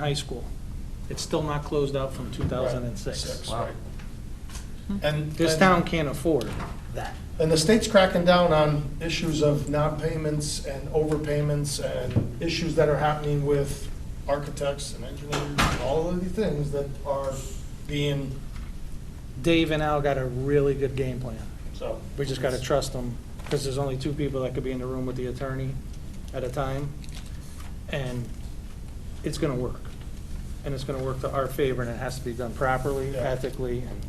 high school. It's still not closed out from 2006. Six, right. And. This and- town can't afford that. And the state's cracking down on issues of non-payments and overpayments and issues that are happening with architects and engineers, and all of the things that are being, Dave and Al got a really good game plan. so. We just got to trust them, because there's only two people that could be in the room with the attorney at a time, and it's going to work. And it's going to work to our favor, and it has to be done properly, Yeah. ethically, and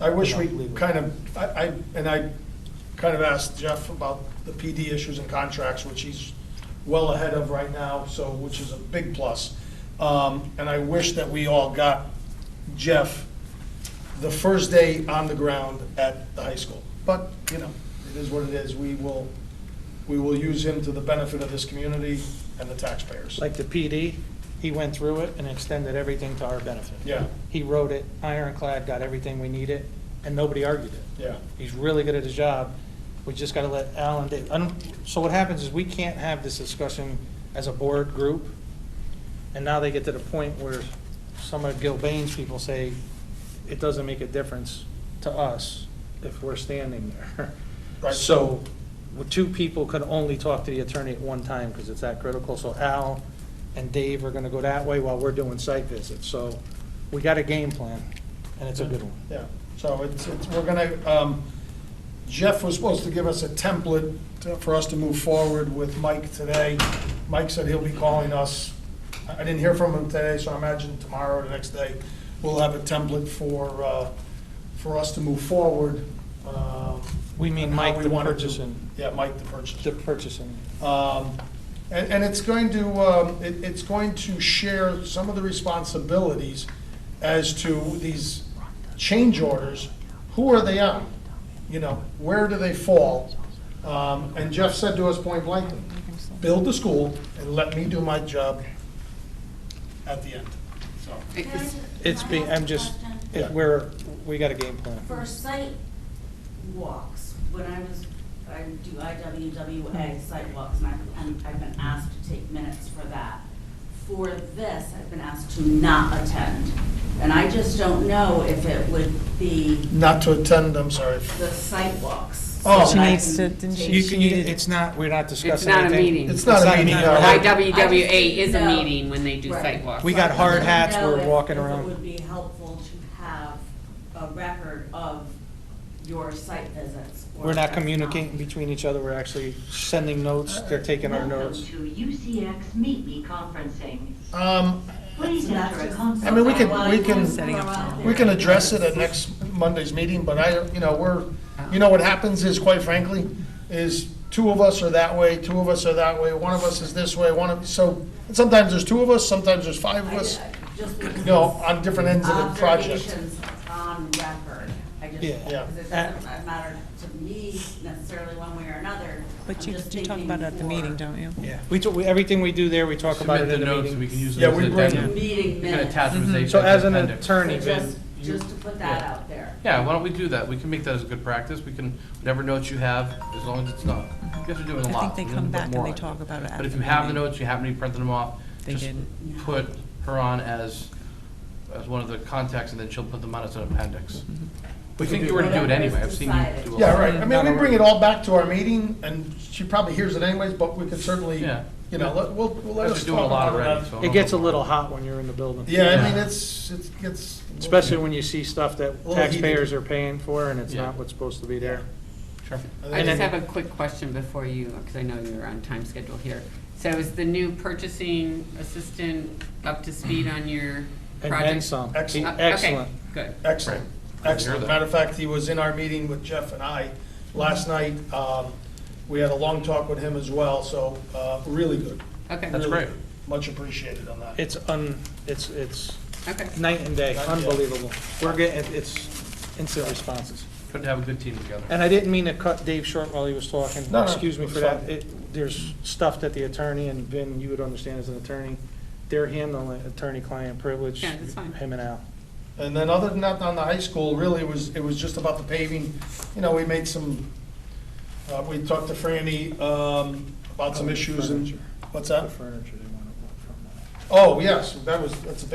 I wish we kind of, I, I, and I kind of asked Jeff about the PD issues and contracts, which he's well ahead of right now, so, which is a big plus. Um, and I wish that we all got Jeff the first day on the ground at the high school. But, you know, it is what it is. We will, we will use him to the benefit of this community and the taxpayers. like the PD, he went through it and extended everything to our benefit. Yeah, He wrote it ironclad, got everything we needed, and nobody argued it. yeah. He's really good at his job. We just gotta let Alan, Dave, I don't, so what happens is we can't have this discussion as a board group. And now they get to the point where some of Gilbane's people say, it doesn't make a difference to us if we're standing there. Right. So, well, two people could only talk to the attorney at one time, because it's that critical. So Al and Dave are gonna go that way while we're doing site visits. So, we got a game plan, and it's a good one. Yeah, so it's, it's, we're gonna, um, Jeff was supposed to give us a template to- for us to move forward with Mike today. Mike said he'll be calling us. I I didn't hear from him today, so I imagine tomorrow or the next day, we'll have a template for, uh, for us to move forward. um, We mean and how Mike we the wanna do- purchasing. Yeah, Mike the purchaser. The purchasing. Um, And, and it's going to, um, it- it's going to share some of the responsibilities as to these change orders. Who are they on? You know, where do they fall? Um, And Jeff said to us point blank, build the school and let me do my job at the end. So, Can I- It's can I being, ask a I'm just, question? it- we're, we got a game plan. For site walks, when I was, I do IWWA site walks, and I've, and I've been asked to take minutes for that. For this, I've been asked to not attend, and I just don't know if it would be Not to attend, I'm sorry. the site walks. Oh. so She that I needs can to- didn't take- You can, you- it's not, we're not discussing not a anything. meeting. It's not a meeting. uh, no. IWWA is a No. meeting when they do Right. site walks. We got So I hard didn't hats, know we're if- walking if around. it would be helpful to have a record of your site visits. or We're if not that's communicating between each other, we're actually sending notes, they're taking our notes. Welcome to UCX Meet Me conferencing. Um, Please enter a I mean, console. we can- Well, we you can- can Setting up throw out We there. can address it at next Monday's meeting, but I, you know, we're, you know, what happens is, quite frankly, is two of us are that way, two of us are that way, one of us is this way, one of, so, and sometimes there's two of us, sometimes there's five of I- I- us, just you because know, on different ends of the project. Observations on record. I just, Yeah. Yeah. because it doesn't matter to me necessarily one way or another. But I'm you, just you talk thinking about it at the meeting, for don't you? Yeah. We, talk- we- everything we do there, we talk about it Submit in the the notes, we can meeting. use Yeah, them as we an bring- addendum. Meeting We can minutes. attach them as a- So as an appendix. attorney, So Ben, just- you- Just to put that Yeah. out there. Yeah, why don't we do that? We can make that as a good practice. We can, whatever notes you have, as long as it's not, you guys are doing a I lot. think they We need come to put back and more they on talk about it But after if the you have the meeting. notes, you happen to print them off. They just didn't. Put her on as, as one of the contacts, and then she'll put them on as an appendix. Mm-hmm. We think you were gonna do it Whatever is anyway. I've seen you decided. do it. Yeah, right, I mean, we bring it all back to our meeting, and she probably hears it anyways, but we could certainly, Yeah. you know, let, we'll, we'll let Guys us are talk doing a lot about it. already, so. I It don't gets a know. little hot when you're in the building. Yeah, I mean, it's, it's, it's. Especially when you see stuff that little heated. taxpayers are paying for and it's Yeah. not what's supposed to be there. Sure. I And just then- have a quick question before you, because I know you're on time schedule here. So is the new purchasing assistant up to speed on your And project? then some. Uh, Excellent. okay, Excellent. Good. Excellent, hear excellent. that. Matter of fact, he was in our meeting with Jeff and I last night. Um, We had a long talk with him as well, so uh, really good. Okay, That's Really great. good. Much appreciated on that. It's un, it's, it's okay. night and day, Night and day. unbelievable. We're getting, it's instant responses. Good to have a good team together. And I didn't mean to cut Dave short while he was talking. No, no, Excuse me for it's that. fine. It- There's stuff that the attorney, and Ben, you would understand as an attorney, they're handling attorney-client privilege. Yeah, that's fine. Him and Al. And then other than that, on the high school, really, it was, it was just about the paving. You know, we made some, uh, we talked to Franny um, about some issues and, Furniture. what's The that? furniture they want to work from. uh, Oh, yes, that was, that's a big